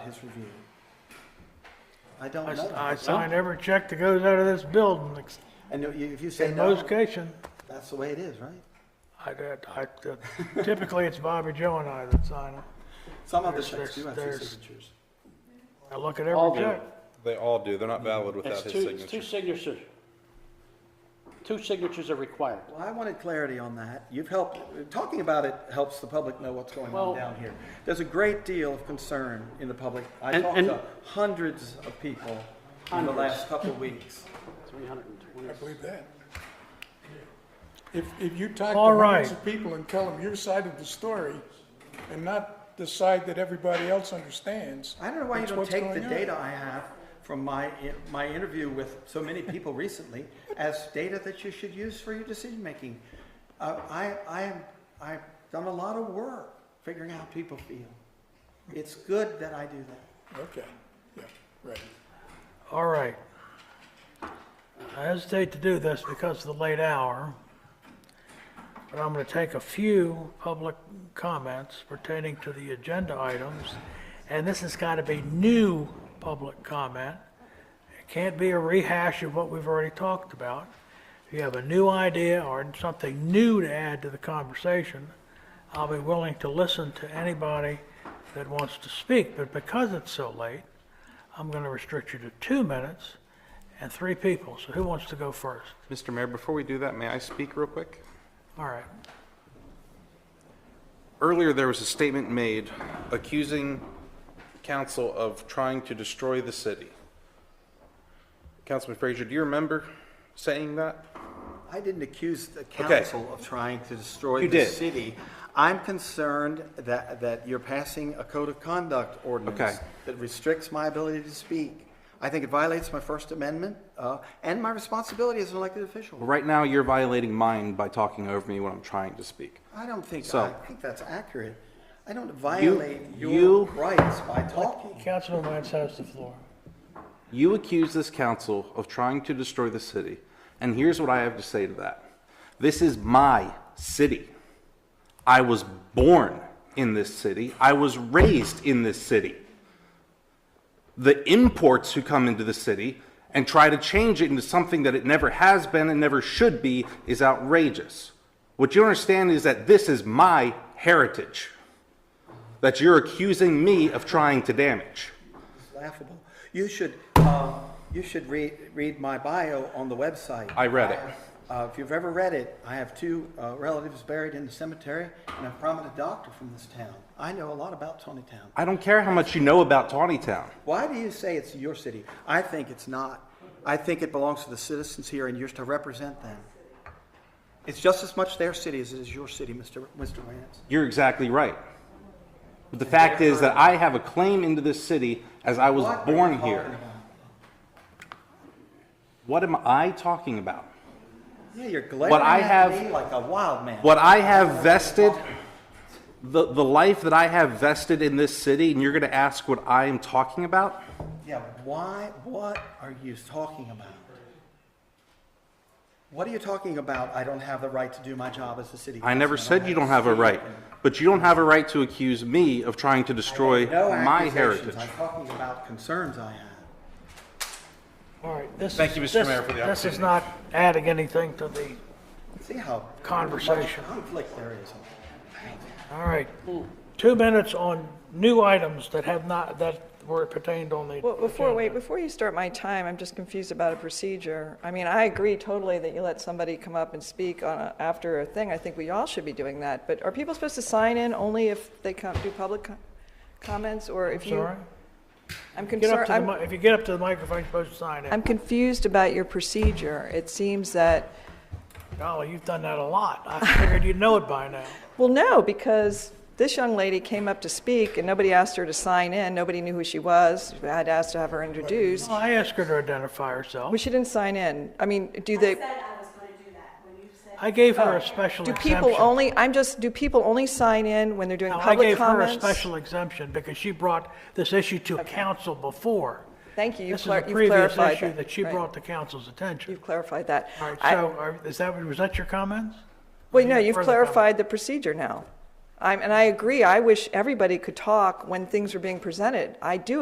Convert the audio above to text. his review? I don't I s- know. I sign every check that goes out of this building, ex- And you- if you say in no, most cases. that's the way it is, right? I, I, I- typically, it's Bobby Joe and I that sign it. Some of the There's- checks do have two there's- signatures. I look at All every do. check. They all do. They're not valid Mm-hmm. It's without his two, it's two signature. signatures. Two signatures are required. Well, I wanted clarity on that. You've helped, talking about it helps the public know what's going on Well- down here. There's a great deal of concern in the public. I And- talked and- to hundreds of people in the Hundreds. last couple of weeks. Three hundred and twenty. I believe that. If, if you talk to All hundreds right. of people and tell them your side of the story and not the side that everybody else understands. I don't know why you that's don't what's take the going on. data I have from my, my interview with so many people recently as data that you should use for your decision-making. Uh, I, I am, I've done a lot of work figuring out how people feel. It's good that I do that. Okay, yeah, right. All right. I hesitate to do this because of the late hour, but I'm going to take a few public comments pertaining to the agenda items, and this has got to be new public comment. It can't be a rehash of what we've already talked about. If you have a new idea or something new to add to the conversation, I'll be willing to listen to anybody that wants to speak, but because it's so late, I'm going to restrict you to two minutes and three people. So who wants to go first? Mr. Mayor, before we do that, may I speak real quick? All right. Earlier, there was a statement made accusing council of trying to destroy the city. Councilman Frazier, do you remember saying that? I didn't accuse the Okay. council of trying to destroy You the did. city. I'm concerned that, that you're passing a code of conduct Okay. ordinance that restricts my ability to speak. I think it violates my First Amendment, uh, and my responsibility as an elected official. Right now, you're violating mine by talking over me when I'm trying to speak. I don't think, So- I think that's accurate. I don't violate your you- rights by talking. Councilman Wentz has the floor. You accuse this council of trying to destroy the city, and here's what I have to say to that. This is my city. I was born in this city. I was raised in this city. The imports who come into the city and try to change it into something that it never has been and never should be is outrageous. What you understand is that this is my heritage that you're accusing me of trying to damage. It's laughable. You should, um, you should read, read my bio on the website. I read it. Uh, If you've ever read it, I have two uh, relatives buried in the cemetery and a prominent doctor from this town. I know a lot about Tawny Town. I don't care how much you know about Tawny Town. Why do you say it's your city? I think it's not. I think it belongs to the citizens here and you're to represent them. It's just as much their city as it is your city, Mr. Mr. Vance. You're exactly right. But the fact is that I have a claim into this city as I was What are you born talking here. about? What am I talking about? Yeah, you're glaring I at have- me like a wild man. What I have vested, the, the life that I have vested in this city, and you're going to ask what I am talking about? Yeah, why, what are you talking about? What are you talking about? I don't have the right to do my job as a city I never councilman. said you don't have a right, but you don't have a right to accuse me of trying to destroy No my accusations. heritage. I'm talking about concerns I have. All right. This Thank is- you, Mr. this- Mayor, for the This is not adding anything to the, See how Conversation. much conflict there is. all right. Two minutes on new items that have not, that were pertained on the. Well, before, agenda. wait, before you start my time, I'm just confused about a procedure. I mean, I agree totally that you let somebody come up and speak on, a- after a thing. I think we all should be doing that. But are people supposed to sign in only if they come, do public co- comments, or if you? Sorry? I'm Get up concerned, to the, I'm, mi- if you get up to the microphone, you're supposed to sign I'm in. confused about your procedure. It seems that, Golly, you've done that a lot. I figured you'd know it by now. well, no, because this young lady came up to speak, and nobody asked her to sign in. Nobody knew who she was. I had asked to have her introduced. Well, I asked her to identify herself. Well, she didn't sign in. I mean, do they? I said I was going to do that when you said. I gave her a special Oh. Do exemption. people only, I'm just, do people only sign in when they're doing Now, I public gave her a comments? special exemption because she brought this issue to council before. Thank you, you've This is a clar- you've previous clarified that. issue that she Right. brought to council's attention. You've clarified that. All right, I- so are- is that, was that your comments? Well, no, any you've further clarified the procedure now. I'm, and I agree, I wish everybody could talk when things are being presented. I do